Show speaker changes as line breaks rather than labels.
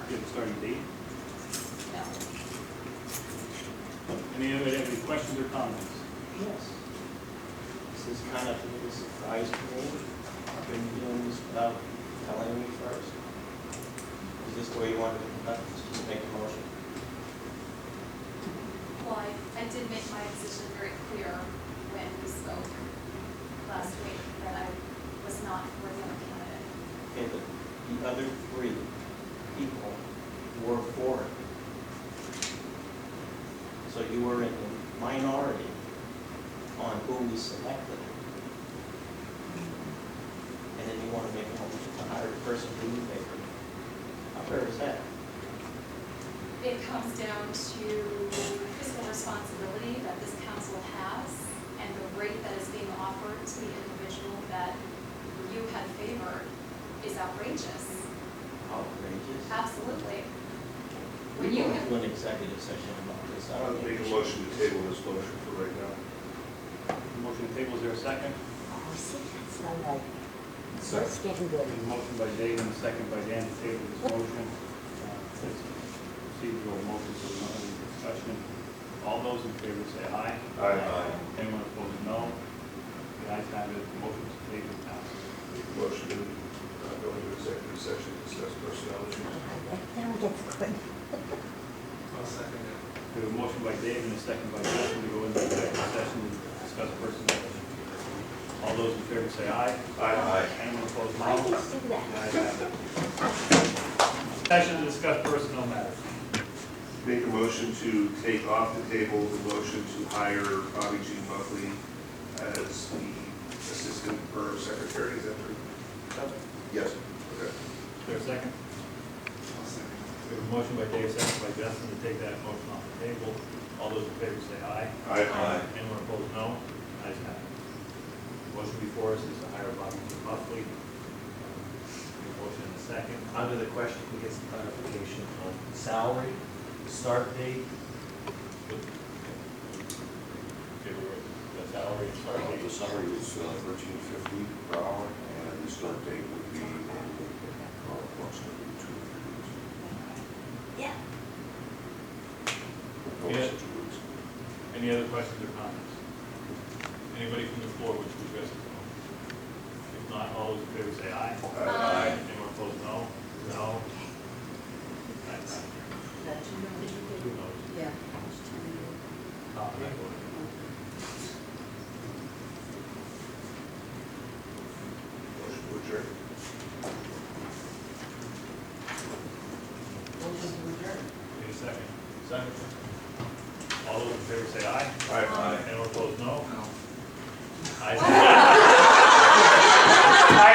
starting with eight.
No.
Any other, have any questions or comments?
Yes. This is kind of a surprise to me. I've been doing this without telling me first. Is this the way you wanted to conduct this? Just make a motion?
Well, I, I did make my position very clear when we spoke last week that I was not working on a candidate.
Okay, the, the other three people were for it. So you were in the minority on who we selected. And then you want to make a motion to hire a person who you favored. How fair is that?
It comes down to fiscal responsibility that this council has and the rate that is being offered to the individual that you had favored is outrageous.
Outrageous.
Absolutely.
We
When you
can
have
do an executive session about this. I
I'll
don't
make
think
a
we should.
motion to table this motion for right now.
Motion to table, is there a second?
Oh, see, that's not right.
Sorry.
It's getting good.
A motion by Dave and a second by Dan to table this motion. Uh, it's Procedural motion, so no other discussion. All those in favor say aye.
Aye.
Anyone opposed, no. The ayes have it, motion to table passes.
Make a motion to uh, go into executive session, to discuss personnel
Uh,
issues.
That that one gets good.
We have a motion by Dave and a second by Justin to go into executive session to discuss personnel issues. All those in favor say aye.
Aye.
Anyone opposed,
Why do
no.
you do that?
The ayes have it. Session to discuss personnel matters.
Make a motion to take off the table the motion to hire Bobby G. Buckley as the assistant borough secretary, is that true? Yes. Okay.
Is there a second? We have a motion by Dave, second by Justin to take that motion off the table. All those in favor say aye.
Aye.
Anyone opposed, no. Ayes have it. Motion before us is to hire Bobby G. Buckley. We have a Motion and a second.
Under the question, we get some clarification on salary, start date.
The salary starting
Uh, The salary was thirteen fifty per hour, and the start date would be uh, approximately two or three weeks.
Yeah.
No
Yeah.
less than two weeks.
Any other questions or comments? Anybody from the floor wish to address the board? If not, all those in favor say aye.
Aye.
Anyone opposed, no? No? Ayes have it. Who knows?
Yeah.
Tom and I voted.
Motion to adjourn.
Need a second? Second. All those in favor say aye.
Aye.
Anyone opposed, no? Ayes have it.